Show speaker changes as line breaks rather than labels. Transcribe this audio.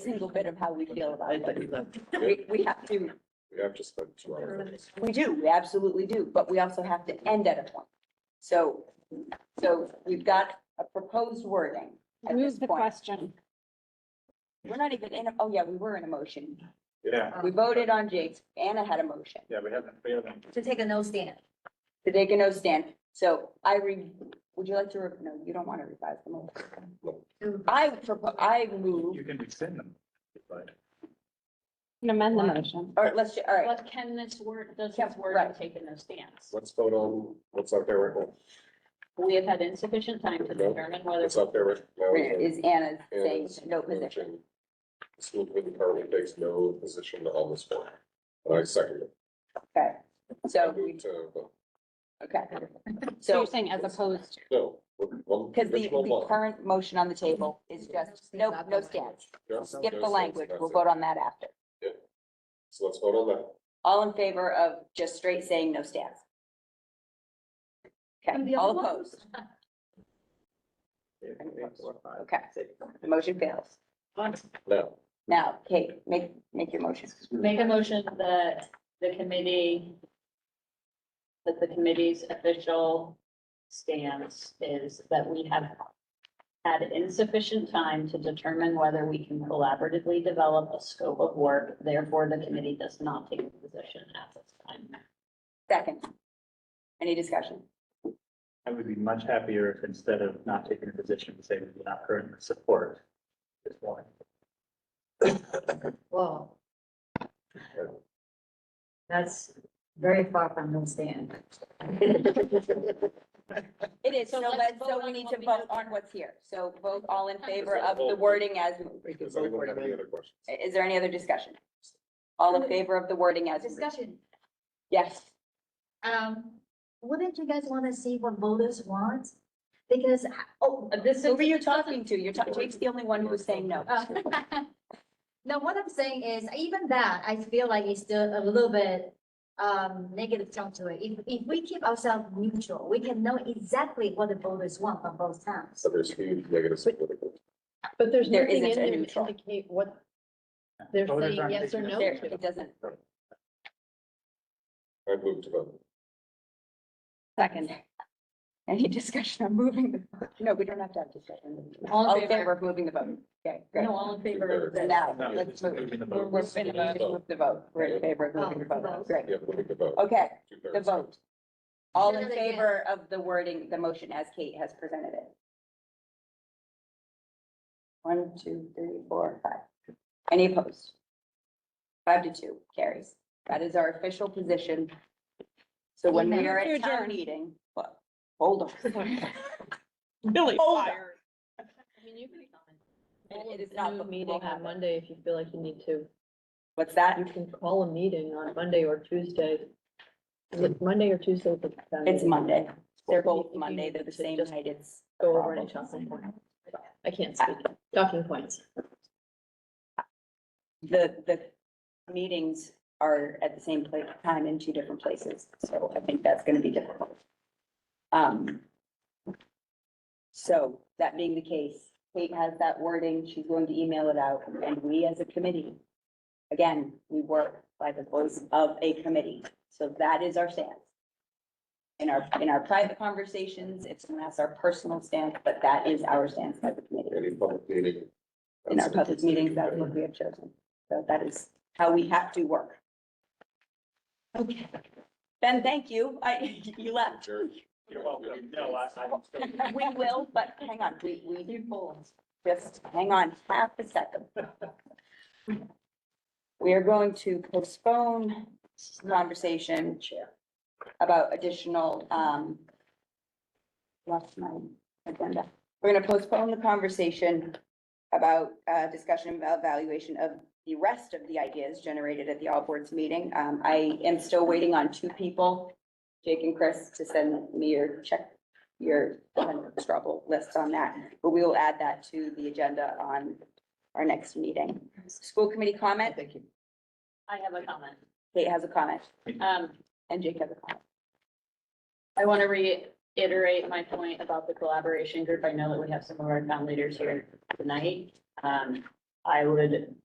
single bit of how we feel about
I
it.
think that-
We, we have to,
We have to spend two hours.
we do, we absolutely do, but we also have to end at a point. So, so we've got a proposed wording at this
Move the
point.
question.
We're not even in, a oh yeah, we were in a motion.
Yeah,
We voted on Jake's, Anna had a motion
yeah, we haven't, we haven't.
to take a no stand.
to take a no stand. So I re, would you like to, re- no, you don't want to revise the motion. I propose, I move,
You can rescind them. but
You can Amend the motion.
or let's, ju- all right,
But can this word, does
Yep,
this word
right.
take in a stance?
Let's vote on what's out there right now.
We have had insufficient time to
No.
determine whether
What's out there right now.
is Anna saying
Anna's
no position?
motion. uh, The School committee currently takes no position on this one. And I second it.
Okay, so
I
we,
move to vote.
okay.
So you're
So
saying as opposed to,
No. one-
Because the,
original
the
one.
current motion on the table is just, no, no stance.
Yes,
Skip
no
the
sense,
language.
that's
We'll
it.
vote on that after.
So let's vote on that.
All in favor of just straight saying no stance?
And
Okay,
the
all
other one?
opposed?
if- if- or five,
Okay,
six.
the motion fails.
Now,
Now, Kate, make, make your motion.
Make a motion that the committee, that the committee's official stance is that we have had insufficient time to determine whether we can collaboratively develop a scope of work. Therefore, the committee does not take a position at this time.
Second. Any discussion?
I would be much happier if instead of not taking a position to say we do not currently support this one.
Whoa. That's very far from no stand.
It is, so
So let's
let's,
vote
so we
on
need
what
to
we
vote
have.
on what's here. So vote all in favor
that
of the
vote?
wording as,
does anyone have any other questions?
is there any other discussion? All in favor of the wording as,
Discussion,
yes.
um, wouldn't you guys want to see what voters want? Because, oh,
This is
Who
who you talking to. You're talking, Jake's the only one who was saying no.
Uh, No, what I'm saying is even that, I feel like it's still a little bit um negative tone to it. If if we keep ourselves neutral, we can know exactly what the voters want from both towns.
So there's huge negatives. political.
But there's
There
nothing in
isn't a
there to
neutral.
indicate what they're
Voters
saying
aren't
yes or
taking a
no
There,
to.
it doesn't.
I move to vote.
second.
Any discussion on moving the, vote? no, we don't have to have discussion. All in favor of moving the vote. Okay, great.
No, all in favor of this.
Now,
No,
let's
just
move.
moving the
We're,
vote.
we're in a motion to move the vote. We're in favor of moving the vote. Great.
Yeah, moving the vote.
Okay,
Two-thirds.
the vote. All in
Say that again.
favor of the wording, the motion as Kate has presented it. One, two, three, four, five. Any opposed? Five to two carries. That is our official position. So when we are at town meeting, well, hold on.
Billy
Hold on.
I mean, you can comment.
It it is not the
Meeting on Monday, if you feel like you need to,
What's that?
you can call a meeting on Monday or Tuesday. Is it Monday or Tuesday? that the town
It's
meeting?
Monday. They're
If
both
you
Monday.
need
They're the
to
same
just
night. It's.
Go
a
over any
problem.
talking points. I can't speak, talking points.
The, the meetings are at the same place, time in two different places. So I think that's going to be difficult. Um. So that being the case, Kate has that wording. She's going to email it out and we as a committee, again, we work by the voice of a committee. So that is our stance. In our, in our private conversations, it's, that's our personal stance, but that is our stance as a committee
Any public meeting.
in our public meetings, that's what we have chosen. So that is how we have to work.
Okay.
Ben, thank you. I, you left.
Jerk.
You're welcome. No, I, I'm still.
We will, but hang on, we, we just hang on half a second. We are going to postpone conversation about additional, um, lost my agenda. We're gonna postpone the conversation about, uh, discussion about evaluation of the rest of the ideas generated at the all boards meeting. Um, I am still waiting on two people, Jake and Chris, to send me your check, your struggle list on that. But we will add that to the agenda on our next meeting. School committee comment?
I have a comment.
Kate has a comment
Um,
and Jake has a comment.
I want to reiterate my point about the collaboration group. I know that we have some of our town leaders here tonight. Um, I would